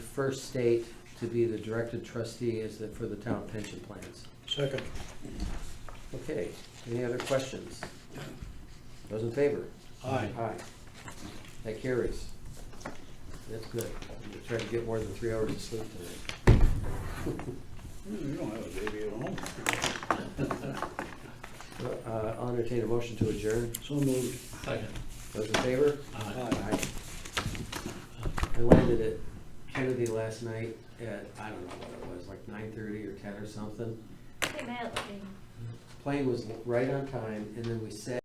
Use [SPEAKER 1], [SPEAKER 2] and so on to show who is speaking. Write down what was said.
[SPEAKER 1] First State to be the directed trustee as the, for the town pension plans.
[SPEAKER 2] Second.
[SPEAKER 1] Okay, any other questions? Those in favor?
[SPEAKER 2] Aye.
[SPEAKER 1] Aye. That carries. That's good. I'm gonna try to get more than three hours of sleep tonight.
[SPEAKER 2] You don't have a baby at home.
[SPEAKER 1] Uh, I'll entertain a motion to adjourn.
[SPEAKER 2] So moved.
[SPEAKER 3] Second.
[SPEAKER 1] Those in favor?
[SPEAKER 3] Aye.
[SPEAKER 2] Aye.
[SPEAKER 1] I landed at Kennedy last night at, I don't know what it was, like nine thirty or ten or something.
[SPEAKER 4] Hey, Matt, let me-
[SPEAKER 1] Plane was right on time, and then we sat